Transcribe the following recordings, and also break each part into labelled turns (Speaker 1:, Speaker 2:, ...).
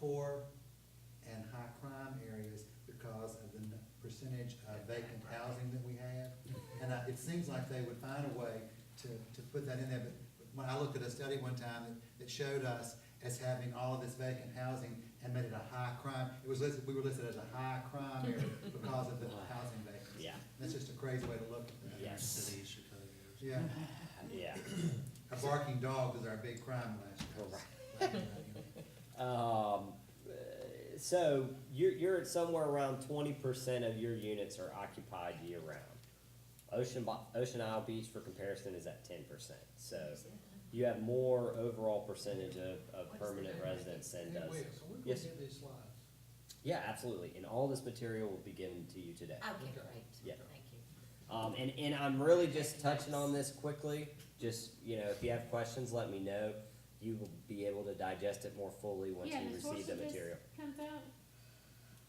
Speaker 1: poor and high crime areas because of the n- percentage of vacant housing that we have. And I, it seems like they would find a way to, to put that in there, but when I looked at a study one time that, that showed us as having all of this vacant housing and made it a high crime, it was listed, we were listed as a high crime area because of the housing vacancy.
Speaker 2: Yeah.
Speaker 1: That's just a crazy way to look at that.
Speaker 2: Yes.
Speaker 3: City of Chicago.
Speaker 1: Yeah,
Speaker 2: Yeah.
Speaker 1: a barking dog was our big crime last year.
Speaker 2: Um, uh, so you're, you're at somewhere around twenty percent of your units are occupied year round. Ocean, Bo- Ocean Isle Beach for comparison is at ten percent, so you have more overall percentage of, of permanent residents than
Speaker 4: Hey,
Speaker 2: does.
Speaker 4: Wes, are we gonna
Speaker 2: Yes.
Speaker 4: get these slides?
Speaker 2: Yeah, absolutely, and all this material will be given to you today.
Speaker 5: Okay, great.
Speaker 2: Yeah.
Speaker 5: Thank you.
Speaker 2: Um, and, and I'm really just touching on this quickly, just, you know, if you have questions, let me know. You will be able to digest it more fully once
Speaker 6: Yeah,
Speaker 2: you
Speaker 6: the
Speaker 2: receive
Speaker 6: source
Speaker 2: the
Speaker 6: of this
Speaker 2: material.
Speaker 6: Comes out,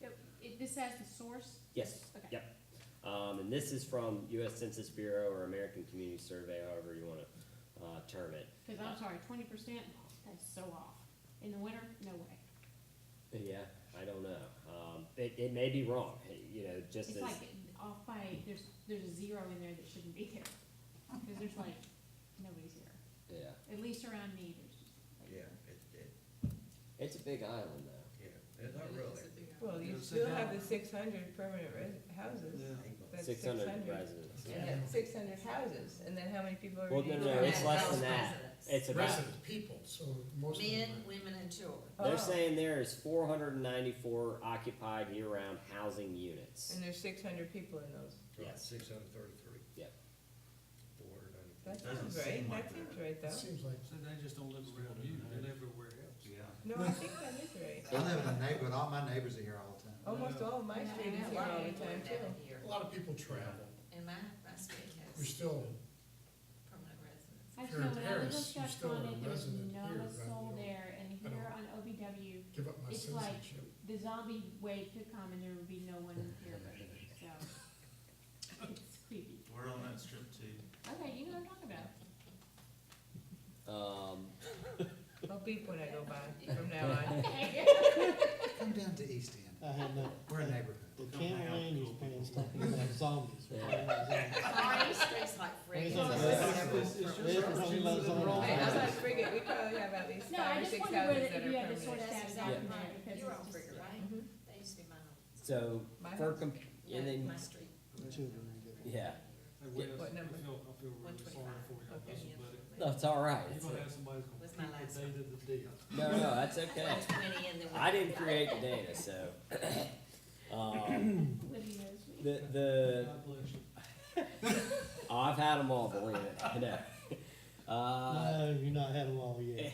Speaker 6: Yep, it, this has the source?
Speaker 2: Yes,
Speaker 6: Okay.
Speaker 2: yep. Um, and this is from US Census Bureau or American Community Survey, however you wanna, uh, term it.
Speaker 6: Cause I'm sorry, twenty percent, that's so off. In the winter, no way.
Speaker 2: Yeah, I don't know. Um, it, it may be wrong, you know, just
Speaker 6: It's
Speaker 2: as,
Speaker 6: like off by, there's, there's a zero in there that shouldn't be there. Cause there's like, nobody's here.
Speaker 2: yeah.
Speaker 6: At least around me, there's just like.
Speaker 3: Yeah, it, it,
Speaker 2: It's a big island though.
Speaker 3: yeah, it's not really.
Speaker 7: Well,
Speaker 4: Yeah,
Speaker 7: you
Speaker 4: so
Speaker 7: still
Speaker 4: now-
Speaker 7: have the six hundred permanent res- houses. That's
Speaker 2: Six hundred residents,
Speaker 7: You
Speaker 2: yeah.
Speaker 7: have six hundred houses, and then how many people are?
Speaker 2: Well,
Speaker 7: in
Speaker 2: no,
Speaker 7: each
Speaker 2: no,
Speaker 7: one?
Speaker 2: it's
Speaker 5: Yeah,
Speaker 2: less
Speaker 5: those
Speaker 2: than that.
Speaker 5: residents.
Speaker 2: It's about,
Speaker 4: Resident people, so most of
Speaker 5: Men,
Speaker 4: them.
Speaker 5: women, and children.
Speaker 7: Oh.
Speaker 2: they're saying there is four hundred and ninety-four occupied year-round housing units.
Speaker 7: And there's six hundred people in those.
Speaker 2: Yes.
Speaker 3: Six hundred thirty-three.
Speaker 2: Yep.
Speaker 3: Four hundred ninety-four.
Speaker 7: That sounds right, that seems right
Speaker 4: It
Speaker 7: though.
Speaker 4: seems like.
Speaker 8: So they just don't live around you, they live everywhere else.
Speaker 3: Yeah.
Speaker 7: No, I think that is right.
Speaker 1: I live in a neighborhood, all my neighbors are here all the time.
Speaker 7: Almost all of my
Speaker 6: Yeah,
Speaker 7: street is
Speaker 6: I
Speaker 7: here all the
Speaker 5: People
Speaker 7: time
Speaker 5: down
Speaker 7: too.
Speaker 5: here.
Speaker 4: A lot of people travel.
Speaker 5: And my, my state
Speaker 4: We're
Speaker 5: has
Speaker 4: still,
Speaker 5: permanent residents.
Speaker 4: If
Speaker 6: I just
Speaker 4: you're in
Speaker 6: know when I lived
Speaker 4: Paris,
Speaker 6: in
Speaker 4: you're still a
Speaker 6: Scotland, there was
Speaker 4: resident
Speaker 6: none
Speaker 4: here,
Speaker 6: of
Speaker 4: right?
Speaker 6: sold
Speaker 4: You
Speaker 6: there and
Speaker 4: I
Speaker 6: here on OBW,
Speaker 4: give up my
Speaker 6: It's like-
Speaker 4: citizenship.
Speaker 6: the zombie wave could come and there would be no one here but me, so. It's creepy.
Speaker 3: We're on that strip too.
Speaker 6: Okay, you know what I'm talking about.
Speaker 2: Um,
Speaker 7: I'll beep when I go by from now on.
Speaker 6: Okay.
Speaker 1: Come down to East End,
Speaker 9: I had no,
Speaker 1: we're a neighborhood.
Speaker 9: the Ken Lane was playing talking about zombies.
Speaker 2: Yeah.
Speaker 5: Our district's like friggin'
Speaker 9: It's not
Speaker 5: several
Speaker 8: It's- it's
Speaker 5: from-
Speaker 9: just-
Speaker 5: from-
Speaker 9: She lives on
Speaker 7: Hey, I'm
Speaker 9: Island.
Speaker 7: not friggin', we probably have at least
Speaker 6: No, I
Speaker 7: five or
Speaker 6: just
Speaker 7: six
Speaker 6: wondered whether
Speaker 7: houses that
Speaker 6: if
Speaker 7: are
Speaker 6: you had the sort of
Speaker 7: permanent.
Speaker 6: stats
Speaker 5: Yeah.
Speaker 6: out in there, because
Speaker 5: You're on
Speaker 6: it's just.
Speaker 5: Frigga, right?
Speaker 7: Mhm.
Speaker 5: They used to be mine.
Speaker 2: so,
Speaker 7: My
Speaker 2: for,
Speaker 7: house.
Speaker 2: com- and then,
Speaker 5: My street.
Speaker 9: The children are getting.
Speaker 2: yeah,
Speaker 8: And we-
Speaker 7: What
Speaker 8: I
Speaker 7: number?
Speaker 8: feel, I feel really sorry
Speaker 5: 125.
Speaker 8: for you,
Speaker 7: Okay.
Speaker 2: that's all right.
Speaker 8: You're gonna have somebody who's
Speaker 5: Was my
Speaker 8: gonna
Speaker 5: last
Speaker 8: beat the date of the deal.
Speaker 2: No, no, that's okay.
Speaker 5: Twenty and then.
Speaker 2: I didn't create the data, so. Um,
Speaker 6: Living knows me.
Speaker 2: the, the,
Speaker 8: God bless you.
Speaker 2: oh, I've had them all, believe it, I know. Uh,
Speaker 9: No, you've not had them all yet.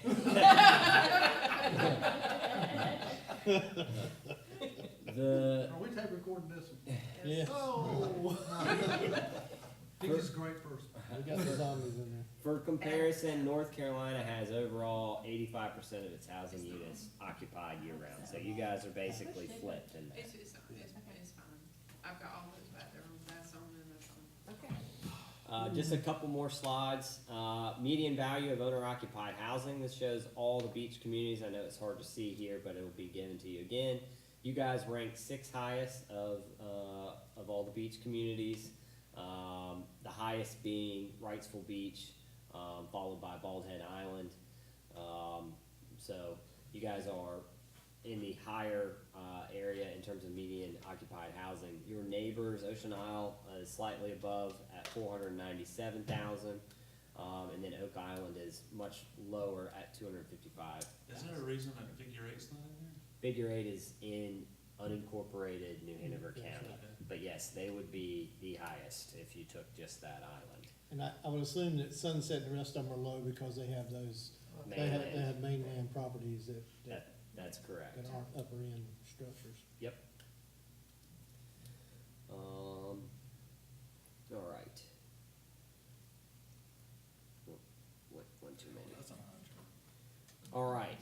Speaker 2: the,
Speaker 8: Are we tape recording this one?
Speaker 9: Yes,
Speaker 8: Oh. He's a great person.
Speaker 9: we got the zombies in there.
Speaker 2: For comparison, North Carolina has overall eighty-five percent of its housing units occupied year-round, so you guys are basically flipped in that.
Speaker 10: It's, it's, it's,
Speaker 6: Okay.
Speaker 10: it's fine. I've got all those back there, that's on and that's on.
Speaker 5: Okay.
Speaker 2: Uh, just a couple more slides, uh, median value of owner-occupied housing, this shows all the beach communities, I know it's hard to see here, but it'll be given to you again. You guys rank sixth highest of, uh, of all the beach communities, um, the highest being Wrightsville Beach, um, followed by Bald Head Island. Um, so you guys are in the higher uh, area in terms of median occupied housing. Your neighbors, Ocean Isle, uh, is slightly above at 497,000, um, and then Oak Island is much lower at 255.
Speaker 3: Is there a reason that figure eight's not in there?
Speaker 2: Figure eight is in unincorporated New Hanover County, but yes, they would be the highest if you took just that island.
Speaker 9: And I, I would assume that Sunset and the rest of them are low because they have those, they have,
Speaker 2: Mainland.
Speaker 9: they have mainland properties that, that,
Speaker 2: That, that's correct.
Speaker 9: that aren't upper end structures.
Speaker 2: Yep. Um, all right. What, what, one too many? All right.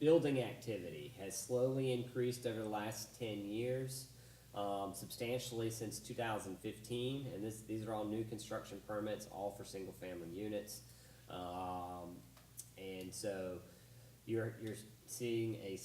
Speaker 2: Building activity has slowly increased over the last ten years, um, substantially since two thousand fifteen, and this, these are all new construction permits, all for single-family units. Um, and so you're, you're seeing a